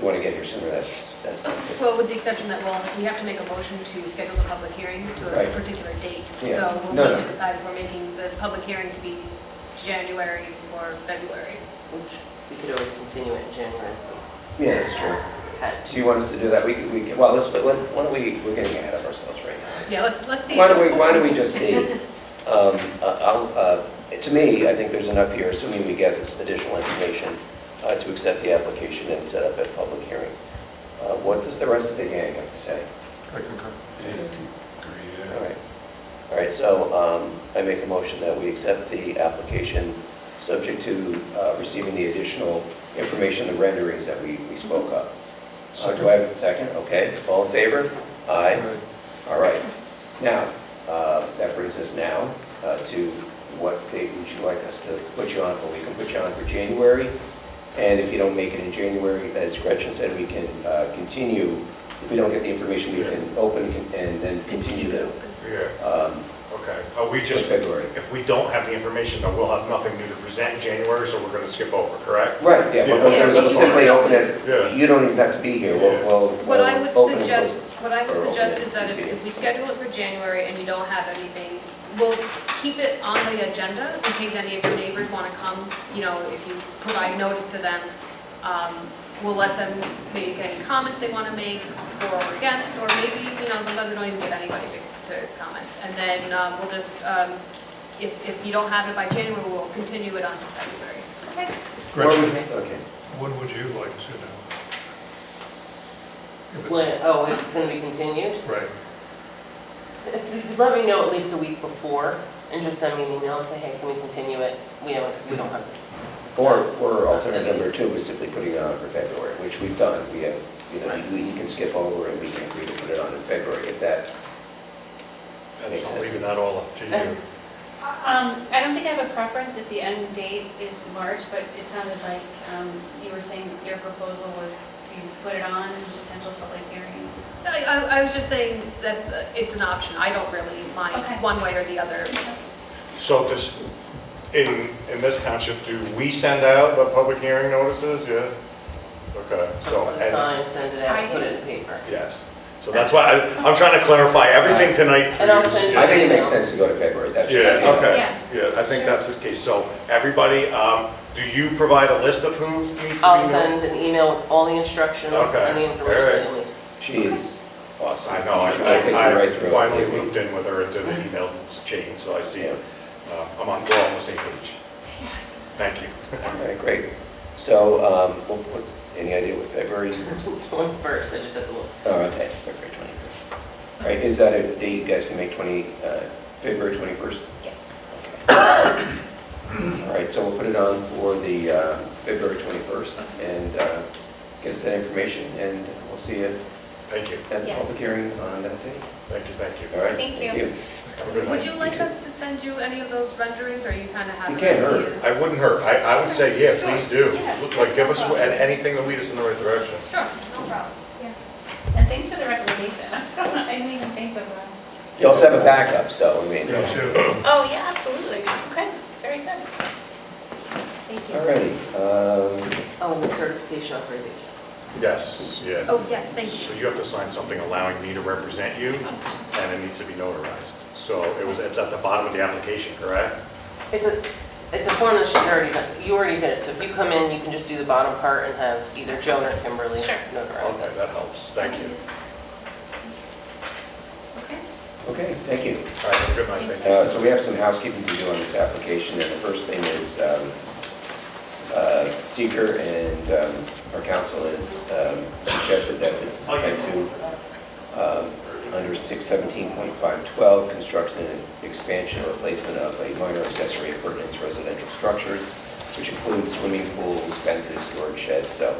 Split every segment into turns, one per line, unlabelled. want to get here sooner, that's, that's fine.
Well, with the exception that, well, we have to make a motion to schedule the public hearing to a
Right.
particular date.
Yeah.
So we'll
No,
need to
no.
decide if we're making the public hearing to be January or February.
Which we could always continue it in January.
Yeah, that's true.
Had
Do you want us to do that? We, could- we, could- well, let's, but let- why don't we, we're getting ahead of ourselves right now.
Yeah, let's, let's see.
Why don't we, why don't we just see? Um, uh, I'll, uh, to me, I think there's enough here, assuming we get this additional information, uh, to accept the application and set up a public hearing. Uh, What does the rest of the gang have to say?
I concur.
All right, all right, so um, I make a motion that we accept the application, subject to uh, receiving the additional information, the renderings that we we spoke of. Uh, Do I have a second? Okay, all in favor? Aye, all right. Now, uh, that brings us now uh, to what date would you like us to put you on for? We can put you on for January, and if you don't make it in January, as Gretchen said, we can uh, continue, if we don't get the information, we can open and then continue to
Yeah,
um,
okay. Uh, We
just
just,
February.
if we don't have the information, then we'll have nothing new to present in January, so we're going to skip over, correct?
Right, yeah,
Yeah.
but we're
Yeah.
gonna simply open
Yeah.
it, you don't even have to be here, we'll,
Yeah.
we'll.
What I
we'll
would
um, open and
suggest,
close.
what I would
or
suggest
open
is that if,
it.
if we schedule it for January and you don't have anything, we'll keep it on the agenda in case any of your neighbors want to come, you know, if you provide notice to them. Um, We'll let them make any comments they want to make for or against, or maybe, you know, sometimes we don't even give anybody to- to comment. And then um, we'll just, um, if, if you don't have it by January, we'll continue it on to February. Okay?
Or we-
Gretchen,
Okay,
when would you like to sit down? If it's-
When, oh, if it's going to be continued?
Right,
If you could Let me know at least a week before and just send me an email and say, hey, can we continue it? We don't, we don't have this. this
or,
done."
or alternative number
Disease.
two is simply putting it on for February, which we've done, we have, you know,
Right.
we you can skip over and we can agree to put it on in February if that, Makes
That's all,
sense.
leaving that all up to you.
Um, I don't think I have a preference if the end date is March, but it sounded like, um, you were saying your proposal was to put it on and potential public hearing.
I, I- I was just saying, that's, uh, it's an option, I don't really mind
Okay.
one way or the other.
So does, in, in this township, do we send out the public hearing notices? Yeah? Okay, so,
Post the
and,
sign, send it out, put it in the paper.
yes. So that's why, I- I'm trying to clarify everything tonight for
And I'll
you.
send
Yeah.
I think it makes sense to go to February, that's just. you
Yeah,
know.
okay,
Yeah.
yeah, I think that's the case. So, everybody, um, do you provide a list of who needs to be?
I'll
notified?
send an email with all the instructions
Okay.
and the information
All right.
that you'll need.
She is awesome.
I know, I,
I'll take you
I I
right through. it.
finally looped in with her into the email chain, so I see it. Uh, I'm on, we're on the same page. Thank you.
All right, great, so, um, we'll put, any idea what February is?
One first, I just have to look.
Oh, okay, February 21st. All right, is that a date you guys can make, 20, uh, February 21st?
Yes.
All right, so we'll put it on for the uh, February 21st and uh, get us that information, and we'll see you
Thank you,
at the
Yes.
public hearing on that day.
thank you, thank you.
All right?
Thank you.
Have a good
Would
night.
you like us to send you any of those renderings, or you kind of have
You
an
can't hurt.
idea?
I wouldn't hurt, I, I would say, yeah,
Sure.
please do.
Yeah.
Look, Like, give us, and anything to lead us in the right direction.
Sure, no problem.
And thanks for the recommendation. I didn't even think of that.
You also have a backup, so, I mean,
me too.
Oh, yeah, absolutely. Okay, very good. Thank you.
all righty. um,
Oh, and the certification authorization.
Yes, yeah.
Oh, yes, thank you.
So you have to sign something allowing me to represent you, and it needs to be notarized. So it was, it's at the bottom of the application, correct?
It's a, it's a form that she's already done, you already did it, so if you come in, you can just do the bottom part and have either Joan or Kimberly
Sure.
notarize
Okay,
it.
that helps, thank you.
Okay.
Okay, thank you.
All right, have a good night, thank you.
Uh, So we have some housekeeping to do on this application, and the first thing is um, uh, seeker and um, our counsel has um, suggested that this is a type 2 um, under 617.512, construction and expansion or replacement of a minor accessory appurtenance residential structures, which includes swimming pools, fences, storage sheds. So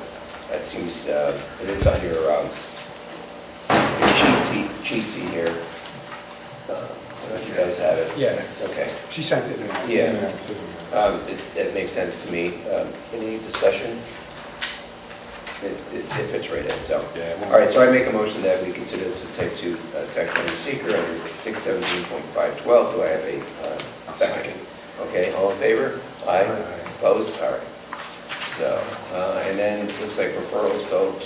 that seems, uh, it is on your um, your cheat sheet- cheat sheet here. Uh, I don't know if you guys have it.
Yeah,
Okay.
she sent it in. an
Yeah.
email to-
Um, It it makes sense to me. Um, Any discussion? It it- it fits right in, so.
Yeah.
All right, so I make a motion that we consider this a type 2 uh, section under seeker under 617.512. Do I have a uh,
I'll
second?
second.
Okay, all in favor? Aye.
Aye.
Opposed? All right. So, uh, and then it looks like referrals go